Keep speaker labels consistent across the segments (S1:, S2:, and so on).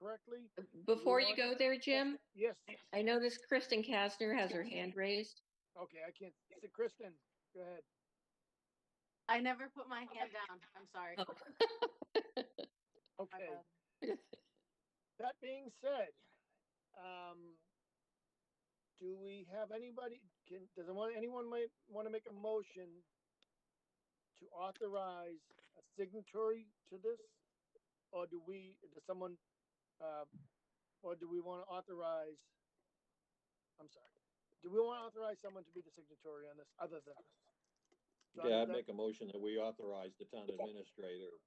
S1: quickly?
S2: Before
S1: know
S2: you go there, Jim,
S1: Yes,
S2: I notice Kristen Kastner has her hand raised.
S1: okay, I can't, so Kristen, go ahead.
S3: I never put my hand down. I'm sorry.
S2: Oh.
S3: My
S1: Okay,
S3: bad.
S1: that being said, um, do we have anybody, can, does anyone, anyone might want to make a motion to authorize a signatory to this? Or do we, does someone, uh, or do we want to authorize? I'm sorry, do we want to authorize someone to be the signatory on this other than? us? So
S4: Yeah, I'd
S1: that-
S4: make a motion that we authorize the town administrator.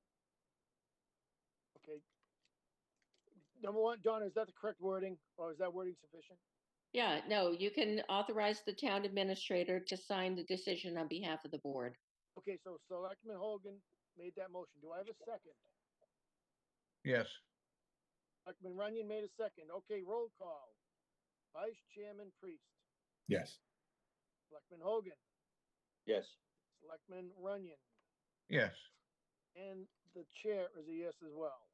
S1: Okay. Number one, Donna, is that the correct wording or is that wording sufficient?
S2: Yeah, no, you can authorize the town administrator to sign the decision on behalf of the board.
S1: Okay, so Selectman Hogan made that motion. Do I have a second?
S5: Yes,
S1: Selectman Runyon made a second. Okay, roll call. Vice Chairman Priest,
S6: Yes.
S1: Selectman Hogan,
S4: Yes,
S1: Selectman Runyon,
S5: yes,
S1: and the chair is a yes as well.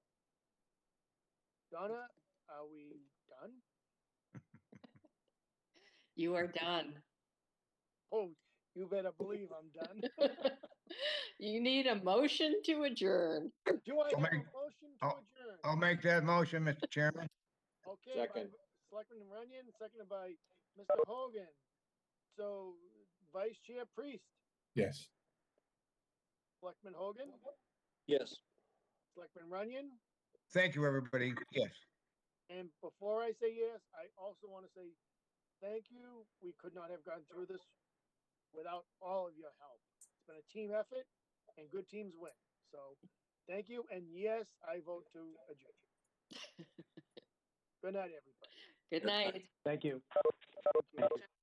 S1: Donna, are we done?
S2: You are done.
S1: Oh, you better believe I'm done.
S2: You need a motion to adjourn.
S1: Do I
S5: I'll
S1: have a
S5: make-
S1: motion to
S5: I'll-
S1: adjourn?
S5: I'll make that motion, Mr. Chairman.
S1: Okay.
S4: Second.
S1: by Selectman Runyon, seconded by Mr. Hogan. So Vice Chair Priest,
S6: Yes.
S1: Selectman Hogan,
S4: yes.
S1: Selectman Runyon.
S5: Thank you, everybody. Yes.
S1: And before I say yes, I also want to say thank you. We could not have gotten through this without all of your help. It's been a team effort and good teams win. So thank you. And yes, I vote to adjourn. Good night, everybody.
S2: Good night.
S7: Thank you.
S1: Thank you.